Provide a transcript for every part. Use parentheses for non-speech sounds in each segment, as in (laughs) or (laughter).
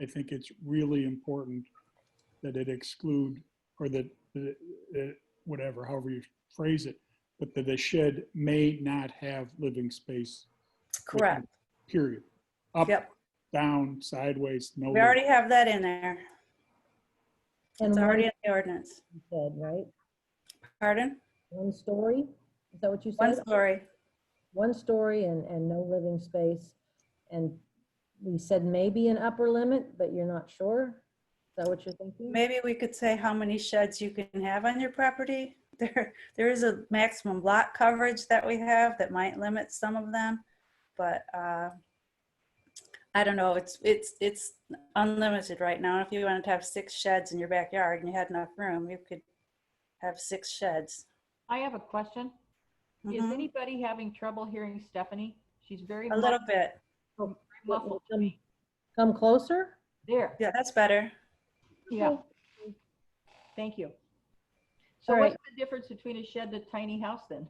I think it's really important that it exclude, or that, that- that- whatever, however you phrase it, but that the shed may not have living space, Correct. period. Up, Yep. down, sideways, no. We already have that in there. And It's one already in the ordinance. you said, right? Pardon? One story? Is that what you One said? story. One story and, and no living space. And we said maybe an upper limit, but you're not sure? Is that what you're thinking? Maybe we could say how many sheds you can have on your property. (laughs) There, there is a maximum lot coverage that we have that might limit some of them, but uh, I don't know, it's, it's, it's unlimited right now. If you wanted to have six sheds in your backyard and you had enough room, you could have six sheds. I have a question. Is Mhm. anybody having trouble hearing Stephanie? She's very A little muff- bit, very muffled to me. Come closer? There, yeah, that's better. yeah. Thank you. So All what's the difference between a shed and a tiny house then?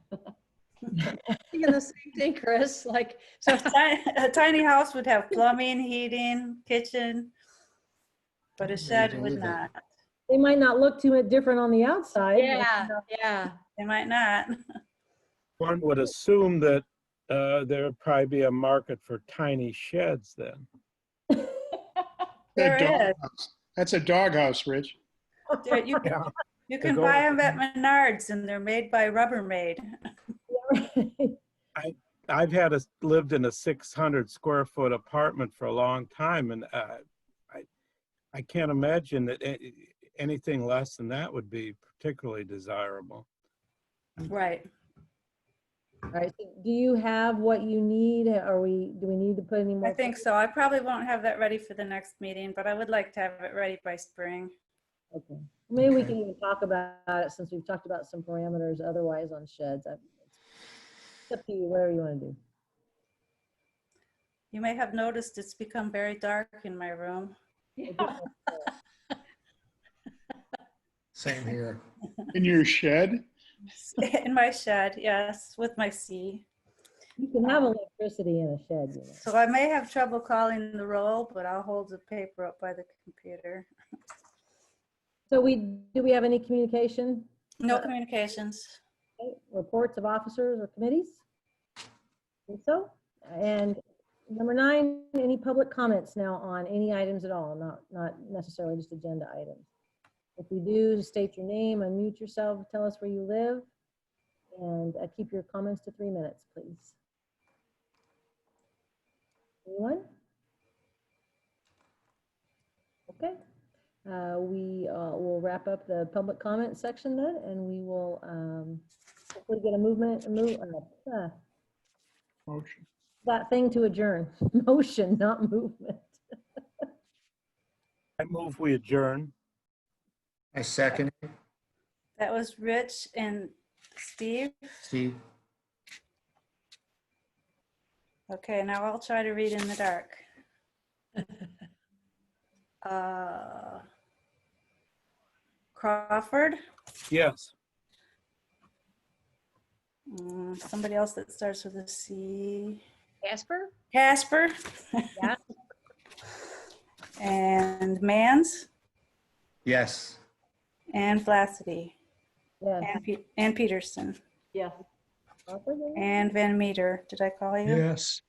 Thinking the same thing, Chris, like, so, (laughs) A ti- a tiny house would have plumbing, heating, kitchen, but a shed would not. They might not look too different on the outside. but- yeah, yeah. They might not. One would assume that uh, there would probably be a market for tiny sheds then. That There is. doghouse. That's a doghouse, Rich. There- You can, Yeah. you can go buy with them at Menards and they're made by Rubbermaid. I've had a, lived in a 600 square foot apartment for a long time and uh, I, I can't imagine that a- anything less than that would be particularly desirable. Right. (laughs) All right, so do you have what you need? Are we, do we need to put any more? I think so. I probably won't have that ready for the next meeting, but I would like to have it ready by spring. Okay. Maybe we Okay. can even talk about it since we've talked about some parameters otherwise on sheds. I- It's up to you, whatever you want to do. You may have noticed it's become very dark in my room. (laughs) Yeah. Same here. In your (laughs) shed? In my shed, yes, with my sea. You can have electricity in a shed, you know. So I may have trouble calling the roll, but I'll hold the paper up by the computer. So we, do we have any communication, No communications. okay, reports of officers or committees? Think so? And number nine, any public comments now on any items at all, not, not necessarily just agenda items? If you do, state your name, unmute yourself, tell us where you live, and uh, keep your comments to three minutes, please. Anyone? Okay. Uh, We uh, will wrap up the public comment section then, and we will um, hopefully get a movement, a move, uh, uh, Motion. that thing to adjourn. (laughs) Motion, not movement. I move we adjourn. I second it, That was Rich and Steve. Steve. Okay, now I'll try to read in the dark. Uh, Crawford, Yes. Mm, somebody else that starts with a C. Casper? Casper. Yeah. (laughs) And Mans Yes. and Flacity Yes. and Pe- and Peterson Yes. Crawford, yeah? and Van Meter. Did I call you? Yes.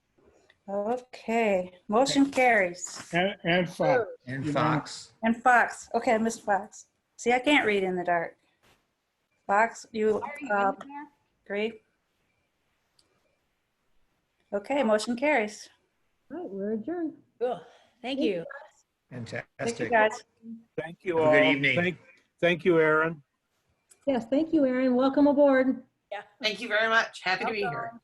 Okay, motion carries. And, and Fox. And Fox. And Fox. Okay, I missed Fox. See, I can't read in the dark. Fox, you Are you in uh, there? agree? Okay, motion carries. All right, we're adjourned. Ugh, Thank you. Thank you, Fantastic. guys. Thank you all. Have a good evening. Thank, thank you, Aaron. Yes, thank you, Erin. Welcome aboard. Thank you very much. Happy to be here.